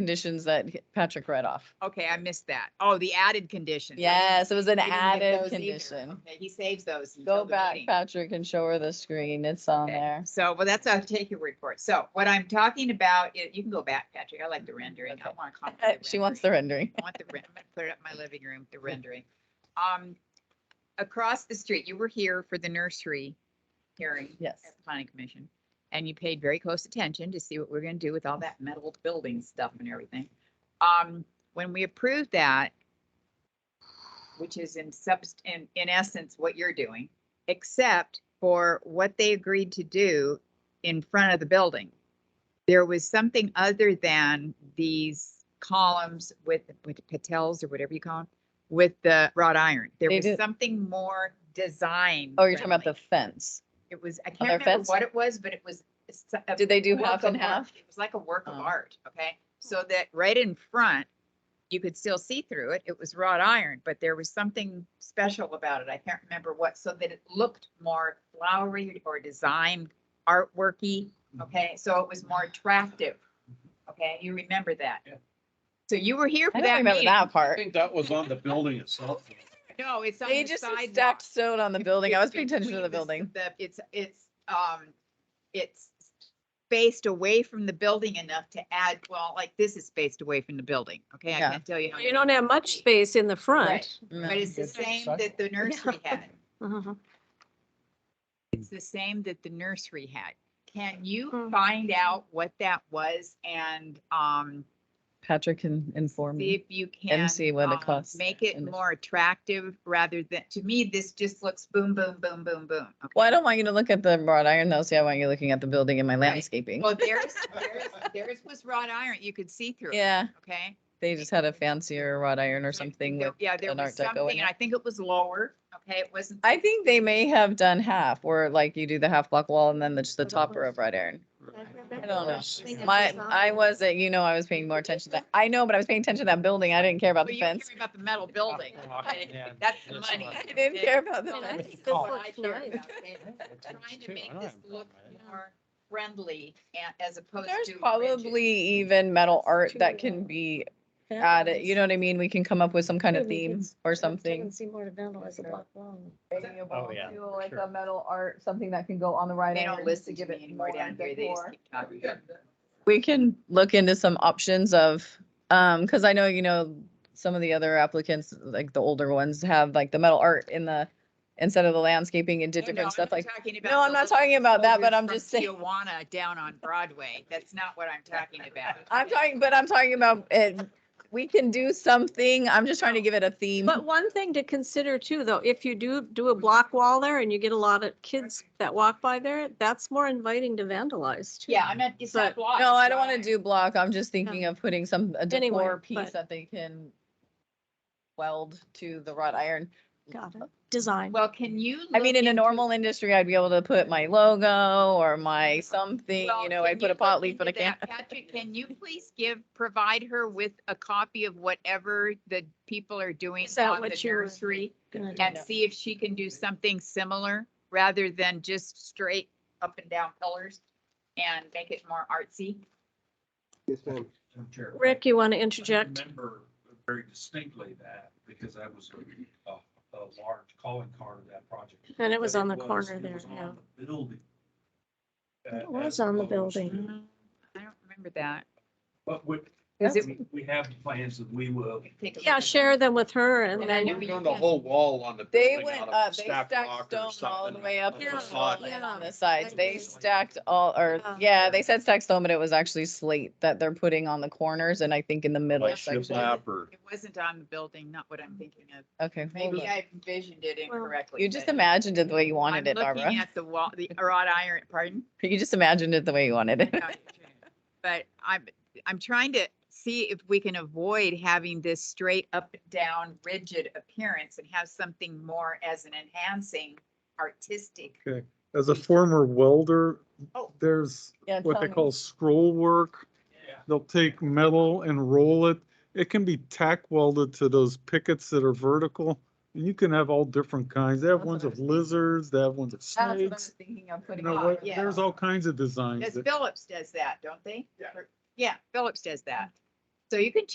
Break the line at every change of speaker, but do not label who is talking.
conditions that Patrick read off.
Okay, I missed that. Oh, the added condition. I
Yes, it was an
didn't get
added
those either.
condition.
Okay, He saves those. until
Go
the
back,
meeting.
Patrick, and show her the screen. It's on
Okay,
there.
So, well, that's, I'll take your report. So what I'm talking about, i- you can go back, Patrick. I like the rendering. I
Okay. Uh,
want to.
She wants the rendering.
I want the, ren- I'm gonna put it up in my living room, the rendering. Um, across the street, you were here for the nursery hearing
Yes.
at the planning commission. And you paid very close attention to see what we're gonna do with all that metal building stuff and everything. Um, when we approved that, which is in subst, in, in essence, what you're doing, except for what they agreed to do in front of the building. There was something other than these columns with, with patels or whatever you call them, with the wrought iron. There
They
was
did-
something more design.
Oh, you're talking about
friendly.
the fence.
It was, I
their
can't remember
fence?
what it was, but it was. s- a
Did they do
work
half and
of art.
half?
It was like a work of
Oh.
art, okay? So that right in front, you could still see through it. It was wrought iron, but there was something special about it. I can't remember what, so that it looked more flowery or designed artworky, okay? So it was more attractive, okay? You remember that?
Yeah.
So you were here for
I don't
that
remember
meeting.
that
I
part.
think that was on the building itself.
No, it's on
They
the
just
sidewalk.
stacked stone on the
It's-
building. I
it's
was paying attention to
between
the building.
s- the- It's, it's, um, it's spaced away from the building enough to add, well, like this is spaced away from the building, okay? I
Yeah.
can't tell you. how
You
many-
don't have much space in the front.
Mm.
But it's the
That's
same
exciting.
that the nursery had.
Mhm.
It's the same that the nursery had. Can you
Hmm.
find out what that was and, um,
Patrick can inform
see
me.
if you can.
and see what it
um,
costs
Make it
and-
more attractive rather than, to me, this just looks boom, boom, boom, boom, boom. okay?
Well, I don't want you to look at the wrought iron though. See, I want you looking at the building and my landscaping.
Well, theirs, theirs, theirs was wrought iron. You could see through it,
Yeah,
okay?
they just had a fancier wrought iron or
So I think
something
there-
with
Yeah, there
an
was
Art Deco
something,
in
and I
it.
think it was lower, okay? It wasn't,
I think they may have done half, where like you do the half block wall and then it's the
Of
topper of
course.
wrought iron. I don't know.
Yeah.
My,
design.
I wasn't, you know, I was paying more attention to that. I know, but I was paying attention to that building. I didn't care about
but
the
you don't
fence.
care about the metal building.
Oh, Yeah.
That's the
That's
money.
what I-
I didn't care about the
And I
fence.
think this
Oh.
What I
looks
care
nice.
about. They- Trying to make this look more friendly and as opposed to.
There's
rigid.
probably even metal art
too
that
low.
can be
Yeah,
added, you know what I mean? We can come up with some kind of
Maybe you could
theme
s-
or
I don't
something.
See more to vandalism.
Sure.
Wow.
Oh, yeah, for
Like a
sure.
metal art, something that can go on the right.
They
iron
don't
to
listen to
give
me
it
anymore
more
down here. They just
decor.
keep talking.
We can look into some options of, um, cause I know, you know, some of the other applicants, like the older ones have like the metal art in the, instead of the landscaping and did
No, no,
different stuff
I'm
like.
talking about
No, I'm
the
not
little
talking about that, but
soldiers
I'm
from
just saying.
Tijuana down on Broadway. That's not what I'm talking about.
I'm talking, but I'm talking about it. We can do something. I'm just trying to give it a theme.
But one thing to consider too, though, if you do do a block wall there and you get a lot of kids that walk by there, that's more inviting to vandalize too.
Yeah, I'm not, it's not
But-
blocked.
No, I
it's
don't
wrought
want to do block. I'm just thinking of putting some, a
Anyway,
decor piece
but-
that they can weld to the wrought iron.
Got it. Design.
Well, can you?
I mean,
look
in a
into-
normal industry, I'd be able to put my logo or my something,
well,
you know,
can
I'd put
you
a pot
look
leaf, but I
into
can't.
that? Patrick, can you please give, provide her with a copy of whatever the people are doing
Is that
on the
what you were
nursery?
Gonna do
And
that.
see if she can do something similar rather than just straight up and down pillars and make it more artsy.
Yes, ma'am.
Rick, you want to interject?
I remember very distinctly that because I was a, a, a large calling card of that project.
And it was
But
on the
was-
corner
it
there,
was on
yeah.
the Building. uh,
It was
as
on the
opposed to-
building.
Mm-hmm. I don't remember that.
But we,
Is it?
we- we have plans that we will.
take a look
Yeah,
at
share them with her
Yeah,
and
I
then.
know
you
you
can-
Turned the whole
wall on the.
They went up, they stacked stone all the way up to
Yeah,
the wall and on
yeah.
the sides. They
Like-
stacked all, or,
Yeah.
yeah, they said stacked stone, but it was actually slate that they're putting on the corners and I think in the middle section.
that. It wasn't on the building, not what I'm thinking of.
Okay. hold
Maybe
on.
I envisioned it
Well,
incorrectly.
You just
but
imagined it the way you wanted it,
I'm
Barbara.
looking at the wall, the wrought iron, pardon?
You just imagined it the way you wanted it.
But I'm, I'm trying to see if we can avoid having this straight up and down rigid appearance and have something more as an enhancing artistic.
As a former welder,
Oh.
there's
Yeah,
what
tell
they
me.
call scroll work. They'll take metal and roll it. It can be tack welded to those pickets that are vertical. And you can have all different kinds. They have
That's what
ones
I
of
was thinking.
lizards, they have ones of
That's what I was
snakes.
thinking of
You
putting
know,
on.
what-
yeah.
there's all kinds of designs.
Because
that-
Phillips does that, don't they?
Yeah.
Yeah, Phillips does that.
Mm-hmm.
So you can